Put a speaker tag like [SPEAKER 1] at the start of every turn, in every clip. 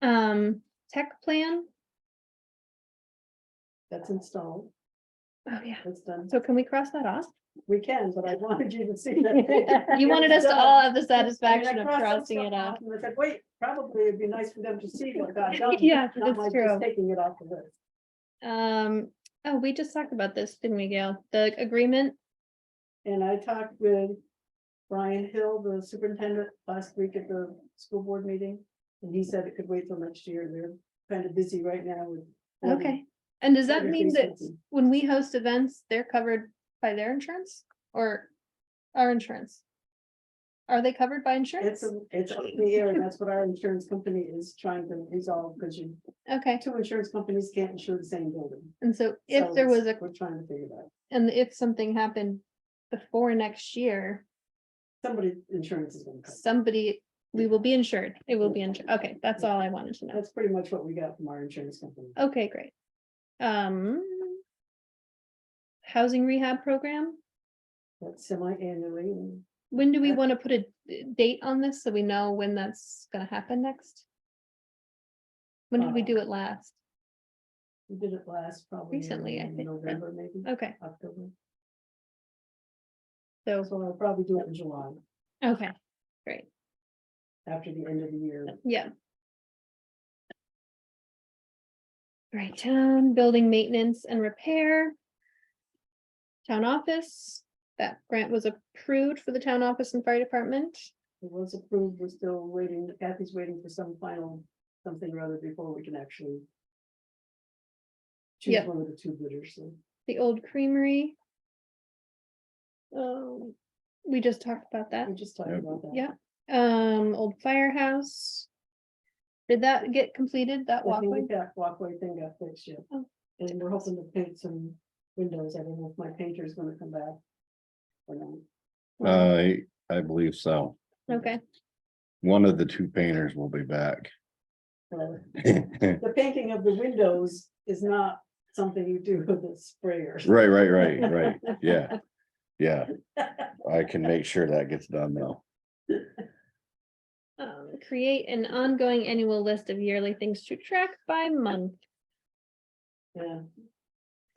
[SPEAKER 1] um, tech plan.
[SPEAKER 2] That's installed,
[SPEAKER 1] Oh, yeah.
[SPEAKER 2] that's done.
[SPEAKER 1] So can we cross that off?
[SPEAKER 2] We can, but I wanted you to see that.
[SPEAKER 1] You wanted us to all have the
[SPEAKER 2] I mean, I
[SPEAKER 1] satisfaction of
[SPEAKER 2] crossed some
[SPEAKER 1] crossing
[SPEAKER 2] stuff
[SPEAKER 1] it off.
[SPEAKER 2] And I said, wait, probably it'd be nice for them to see what got done.
[SPEAKER 1] Yeah,
[SPEAKER 2] not
[SPEAKER 1] that's
[SPEAKER 2] like just
[SPEAKER 1] true.
[SPEAKER 2] Taking it off the list.
[SPEAKER 1] Um, oh, we just talked about this, didn't we, Gail? The agreement?
[SPEAKER 2] And I talked with Brian Hill, the superintendent, last week at the school board meeting. And he said it could wait till next year. They're kind of busy right now with. um,
[SPEAKER 1] Okay. And does that
[SPEAKER 2] Everything's
[SPEAKER 1] mean that
[SPEAKER 2] open.
[SPEAKER 1] when we host events, they're covered by their insurance or our insurance? Are they covered by
[SPEAKER 2] It's,
[SPEAKER 1] insurance?
[SPEAKER 2] a- it's up in the air, and that's what our insurance company is trying to resolve, because you,
[SPEAKER 1] Okay,
[SPEAKER 2] two insurance companies can't insure the same building.
[SPEAKER 1] and so
[SPEAKER 2] So
[SPEAKER 1] if there was
[SPEAKER 2] it's-
[SPEAKER 1] a,
[SPEAKER 2] We're trying to figure that. out.
[SPEAKER 1] and if something happened before next year,
[SPEAKER 2] Somebody, insurance is gonna cover. it.
[SPEAKER 1] somebody, we will be insured. It will be insured. Okay, that's all I wanted to know.
[SPEAKER 2] That's pretty much what we got from our insurance company.
[SPEAKER 1] Okay, great. Um. Housing rehab program,
[SPEAKER 2] That's semi-annually. and
[SPEAKER 1] when do we
[SPEAKER 2] Uh,
[SPEAKER 1] want to put a d- date on this so we know when that's gonna happen next? When did we
[SPEAKER 2] Uh,
[SPEAKER 1] do it last?
[SPEAKER 2] We did it last probably.
[SPEAKER 1] Recently, I
[SPEAKER 2] in
[SPEAKER 1] think, Oh. right?
[SPEAKER 2] November, maybe,
[SPEAKER 1] Okay,
[SPEAKER 2] October.
[SPEAKER 1] so,
[SPEAKER 2] So I'll probably do it in July,
[SPEAKER 1] okay,
[SPEAKER 2] after the end of the year.
[SPEAKER 1] yeah. Right, town building maintenance and repair. Town office, that grant was approved for the town office and fire department.
[SPEAKER 2] It was approved, we're still waiting, Kathy's waiting for some final, something or other before we can actually. Choose
[SPEAKER 1] Yeah.
[SPEAKER 2] one of the two bidders, so.
[SPEAKER 1] the old creamery. Um, we just talked about that,
[SPEAKER 2] We just talked
[SPEAKER 3] Yep.
[SPEAKER 2] about that.
[SPEAKER 1] Yeah, um, old firehouse. Did that get completed, that
[SPEAKER 2] I
[SPEAKER 1] walkway?
[SPEAKER 2] think that walkway thing got fixed, yeah.
[SPEAKER 1] Oh.
[SPEAKER 2] And we're hoping to paint some windows. I don't know if my painter's gonna come back. Or not.
[SPEAKER 3] I, I believe so.
[SPEAKER 1] Okay,
[SPEAKER 3] One of the two painters will be back.
[SPEAKER 2] So The painting of the windows is not something you do with a sprayer.
[SPEAKER 3] Right, right, right, right. Yeah. Yeah, I can make sure that gets done though.
[SPEAKER 1] um, create an ongoing annual list of yearly things to track by month.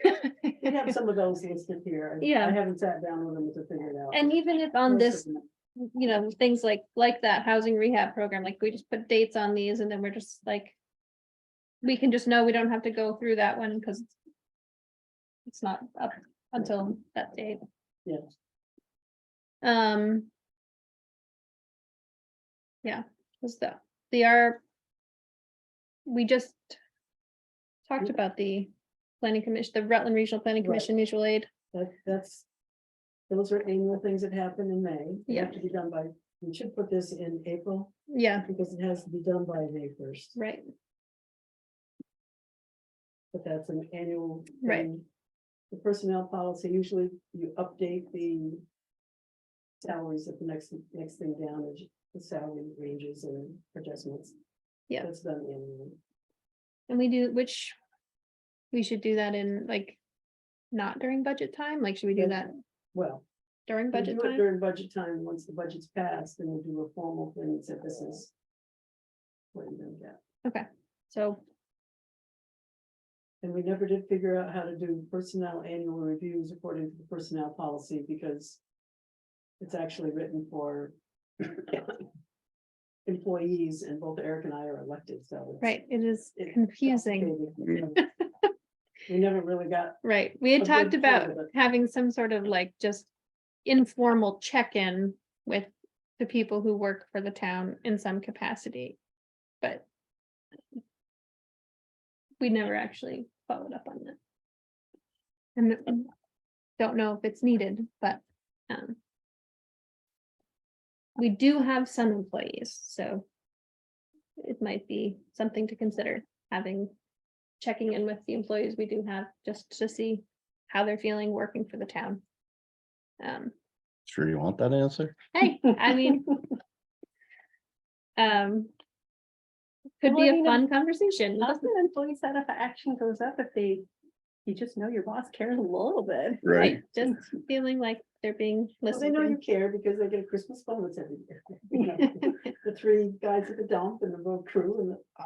[SPEAKER 2] Yeah. We have some of those listed here. I-
[SPEAKER 1] Yeah.
[SPEAKER 2] I haven't sat down with them to figure it out.
[SPEAKER 1] And even if on
[SPEAKER 2] Most
[SPEAKER 1] this,
[SPEAKER 2] of them.
[SPEAKER 1] you know, things like, like that housing rehab program, like we just put dates on these and then we're just like. We can just know we don't have to go through that one because. It's not up until that date.
[SPEAKER 2] Yeah.
[SPEAKER 1] Um. Yeah, was the, they are. We just. Talked
[SPEAKER 2] Mm.
[SPEAKER 1] about the planning commission, the Rutland Regional Planning
[SPEAKER 2] Right.
[SPEAKER 1] Commission mutual aid.
[SPEAKER 2] That, that's. Those are annual things that happen in May. They have To be done by, we should put this in April
[SPEAKER 1] Yeah,
[SPEAKER 2] because it has to be done by May first,
[SPEAKER 1] right.
[SPEAKER 2] but that's an annual.
[SPEAKER 1] Right.
[SPEAKER 2] thing. The personnel policy, usually you update the. Salaries at the next, next thing down, is the salary ranges and adjustments.
[SPEAKER 1] Yeah.
[SPEAKER 2] That's done annually.
[SPEAKER 1] And we do, which. We should do that in like. Not during budget time, like should we do
[SPEAKER 2] Yes.
[SPEAKER 1] that
[SPEAKER 2] well.
[SPEAKER 1] during
[SPEAKER 2] we
[SPEAKER 1] budget
[SPEAKER 2] do it
[SPEAKER 1] time?
[SPEAKER 2] During budget time, once the budget's passed, then we do a formal thing and say this is. What you're gonna get,
[SPEAKER 1] So,
[SPEAKER 2] and we never did figure out how to do personnel annual reviews according to the personnel policy because. It's actually written for. Employees and both Eric and I are elected, so. it's-
[SPEAKER 1] right, it is
[SPEAKER 2] it's
[SPEAKER 1] confusing,
[SPEAKER 2] complicated. We never really got,
[SPEAKER 1] right? We
[SPEAKER 2] a
[SPEAKER 1] had
[SPEAKER 2] good
[SPEAKER 1] talked
[SPEAKER 2] chunk
[SPEAKER 1] about
[SPEAKER 2] of it.
[SPEAKER 1] having some sort of like just. Informal check-in with the people who work for the town in some capacity, but. We never actually followed up on that. And um, don't know if it's needed, but, um. We do have some employees, so. It might be something to consider having, checking in with the employees we do have, just to see how they're feeling working for the town. Um,
[SPEAKER 3] Sure you want that answer?
[SPEAKER 1] hey, I mean. Um. Could
[SPEAKER 4] Well,
[SPEAKER 1] be
[SPEAKER 4] I
[SPEAKER 1] a
[SPEAKER 4] mean,
[SPEAKER 1] fun conversation.
[SPEAKER 4] How's that employee set up, action goes up if they, you just know your boss cares a little bit.
[SPEAKER 3] Right.
[SPEAKER 1] Just feeling like they're being
[SPEAKER 2] well, they know you
[SPEAKER 1] listened
[SPEAKER 2] care because they get a Christmas bonus every year. you know. The three guys at the dump and the road crew and the